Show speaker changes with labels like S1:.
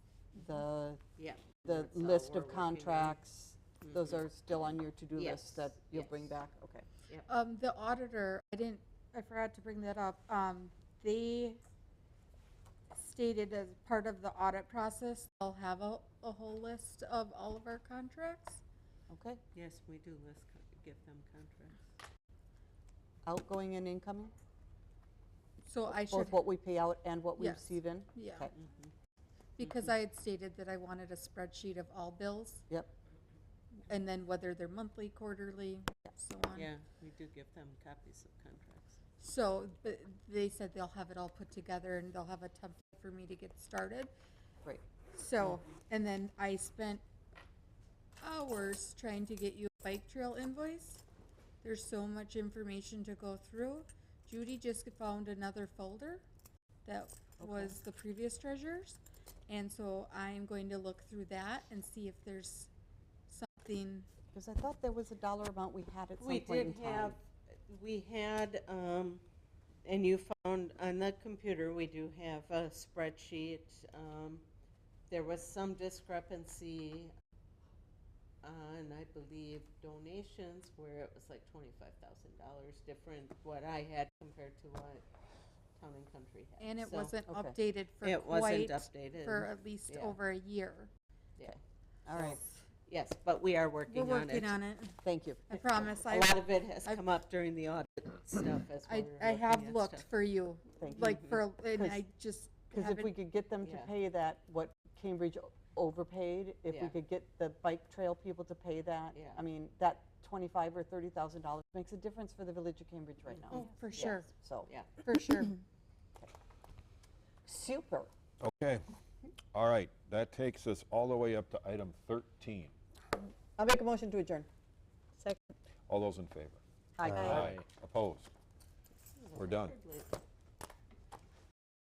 S1: the,
S2: Yeah. Mm-hmm.
S1: the
S2: That's all
S1: list
S2: uh, we're
S1: of
S2: working on.
S1: contracts, those are still on your to-do
S2: Yes,
S1: list that you'll bring
S2: yes.
S1: back? Okay.
S3: Um, the auditor, I didn't, I forgot to bring that up. Um, they stated as part of the audit process, I'll have a, a whole list of all of our contracts.
S1: Okay.
S2: Yes, we do list, co- give them contracts.
S1: Outgoing and incoming,
S3: So I should,
S1: both what we pay out and what we
S3: Yes.
S1: receive in?
S3: yeah,
S1: Okay.
S3: because I had stated that I wanted a spreadsheet of all bills
S1: Yep,
S3: and then whether they're monthly, quarterly, so on.
S2: Yeah, we do give them copies of contracts.
S3: So, but they said they'll have it all put together and they'll have a template for me to get started.
S1: great.
S3: So, and then I spent hours trying to get you a bike trail invoice. There's so much information to go through. Judy just found another folder that was the previous treasures. And so I'm going to look through that and see if there's something,
S1: Because I thought there was a dollar amount we had at some
S2: We
S1: point in
S2: did
S1: time.
S2: have, we had, um, and you found on the computer, we do have a spreadsheet. Um, there was some discrepancy on, I believe, donations where it was like twenty-five thousand dollars different what I had compared to what Town and Country had.
S3: and it
S2: So
S3: wasn't
S1: okay.
S3: updated for
S2: It wasn't
S3: quite,
S2: updated.
S3: for at least
S2: yeah.
S3: over a year.
S1: All right,
S2: Yes, but we are
S3: We're
S2: working on it.
S3: working on it.
S1: thank you.
S3: I promise.
S2: A
S3: I,
S2: lot of it has
S3: I've-
S2: come up during the audit stuff as we're
S3: I,
S2: looking
S3: I have
S2: at
S3: looked
S2: stuff.
S3: for you.
S1: Thank you.
S3: like for, and
S1: 'Cause-
S3: I just
S1: Because if we
S3: haven't,
S1: could get them to
S2: Yeah.
S1: pay that, what Cambridge o- overpaid, if we
S2: Yeah.
S1: could get the bike trail people to pay that,
S2: Yeah.
S1: I mean, that twenty-five or thirty thousand dollars makes a difference for the village of Cambridge right now.
S3: oh, for
S1: Yeah,
S3: sure,
S1: So,
S2: Mm-hmm. Yeah.
S3: for sure.
S1: super.
S4: Okay, all right, that takes us all the way up to item 13.
S1: I'll make a motion to adjourn.
S4: All those in favor?
S1: Aye.
S4: Opposed? We're done.
S2: Hardly.